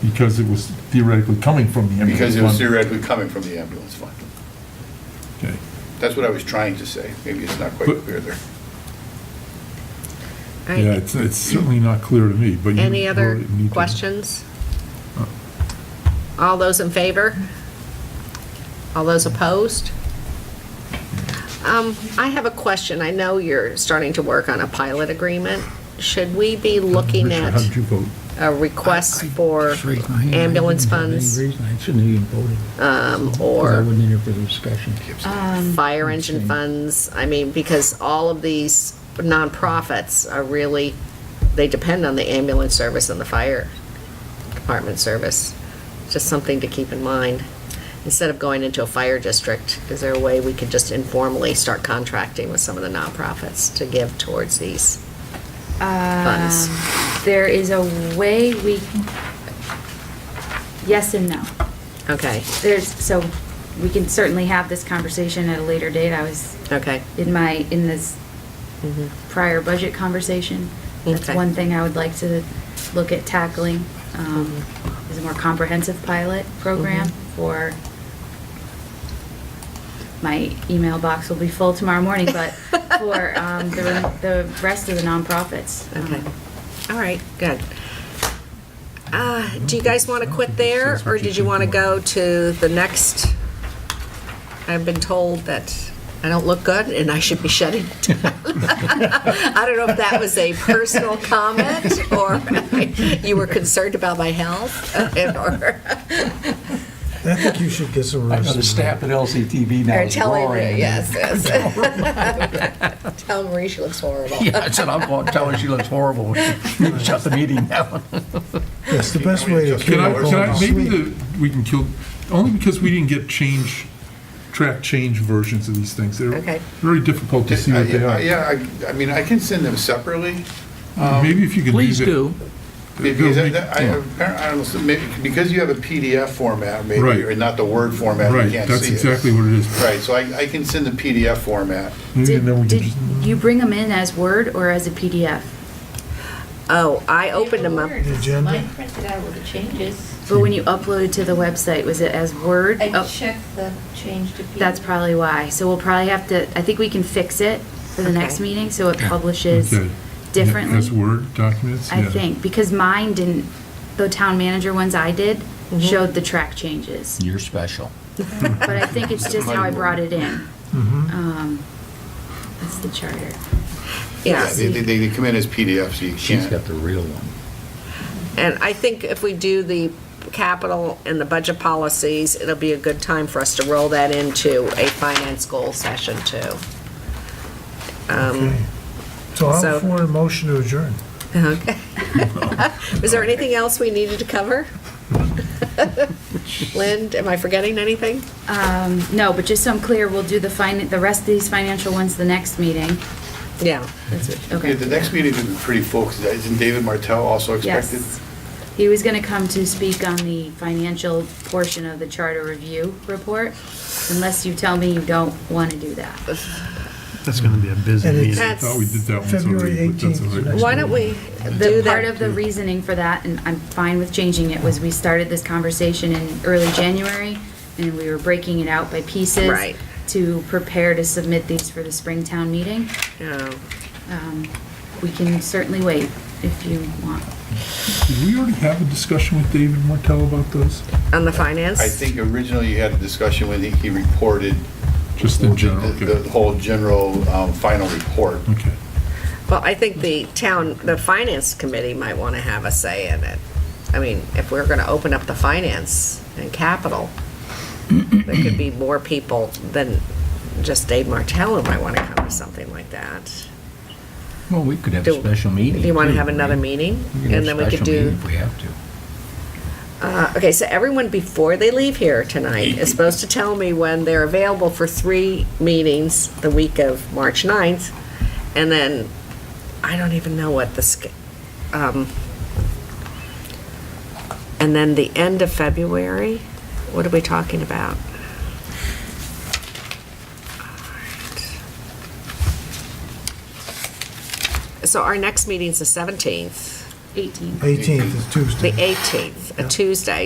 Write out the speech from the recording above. because it was theoretically coming from the ambulance. because it was fund. theoretically coming from the ambulance fund. Okay. That's what I was trying to say. Maybe it's not quite But- clear there. All Yeah, right. it's, it's certainly not clear to me, but you. Any other really need to- questions? All those in favor? All those opposed? Um, I have a question. I know you're starting to work on a pilot agreement. Should we be looking Richard, at How did you vote? a request I- I for just raised my hand. I ambulance didn't have any funds um, reason. I shouldn't have even voted. 'cause I or uh, wouldn't interfere with discussion. fire engine funds? I mean, because all of these nonprofits are really, they depend on the ambulance service and the fire department service. Just something to keep in mind. Instead of going into a fire district, is there a way we could just informally start contracting with some of the nonprofits to give towards these funds? Um, There is a way we, yes and no. Okay, There's, so we can certainly have this conversation at a later date. I was okay. in my, in this Mhm. prior budget conversation. That's Okay. one thing I would like to look at tackling, um, Mm-hmm. is a more comprehensive pilot program for, my email box will be full tomorrow morning, but for um, the the rest of the nonprofits. Okay. um, All right, good. Uh, Do you guys want to quit there, or did you want to go to the next? I've been told that I don't look good and I should be shutting down. I don't know if that was a personal comment, or you were concerned about my health, or I think you should get some I rest. know the staff at LCTV now or is telling roaring. me, yes, yes. Tell Marie she looks horrible. Yeah, I said, I'm going to tell her she looks horrible. Shut the meeting down. Yes, the best way to keep Can I, it can I, maybe going. the, we can kill, only because we didn't get change, track change versions of these things. They're Okay. very difficult to see what they Uh, Yeah, um, are. I- I mean, I can send them separately. Maybe if you could leave Please it. do. Because I- that- I- Yeah. I don't know, maybe- because you have a PDF format, maybe, Right. or not the Word format, you Right, can't that's see it. exactly what it is. Right, so I I can send the PDF format. Maybe Did then we can did just- you bring them in as Word or as a PDF? Oh, I opened them up. The agenda? Mine printed out with the changes. But when you uploaded to the website, was it as Word? I Oh, checked the change to. That's PDF. probably why. So we'll probably have to, I think we can fix it for the next Okay. meeting, so it publishes Okay. differently. As Word documents? I Yeah. think, because mine didn't, the town manager ones I did Mhm. showed the track changes. You're special. But I think it's just how I brought it in. Um, That's the charter. Yes. They, they- they come in as PDFs, so you She's can't. got the real one. And I think if we do the capital and the budget policies, it'll be a good time for us to roll that into a finance goal session too. Um, Okay. So I'm So- for a motion to adjourn. Okay. Was there anything else we needed to cover? Lynn, am I forgetting anything? Um, No, but just so I'm clear, we'll do the fin, the rest of these financial ones the next meeting. Yeah. That's what- Yeah, Okay. The next meeting will be pretty full, 'cause isn't David Martell also expected? Yes. He was going to come to speak on the financial portion of the charter review report, unless you tell me you don't want to do that. That's going to be a busy And meeting. it's- I thought we did that one February already, but that's 18th is all right. next Why don't we do The part that? of the reasoning for that, and I'm fine with changing it, was we started this conversation in early January, and we were breaking it out by pieces. Right. To prepare to submit these for the Springtown meeting. Oh, Um, We can certainly wait if you want. Did we already have a discussion with David Martell about those? On the finance? I think originally you had a discussion when he- he reported. Just in general, the- okay. The whole general um, final report. Okay. Well, I think the town, the finance committee might want to have a say in it. I mean, if we're going to open up the finance and capital, there could be more people than just Dave Martell who might want to come to something like that. Well, we could have Do- a special meeting. Do you want to too, have another right? meeting? We And then we have a could special meeting do, If we have to. uh, okay, so everyone before they leave here tonight is supposed to tell me when they're available for three meetings the week of March 9th. And then, I don't even know what the, sch- um, And then the end of February, what are we talking about? So our next meeting's the 17th. 18th. 18th is Tuesday. The 18th, a Tuesday.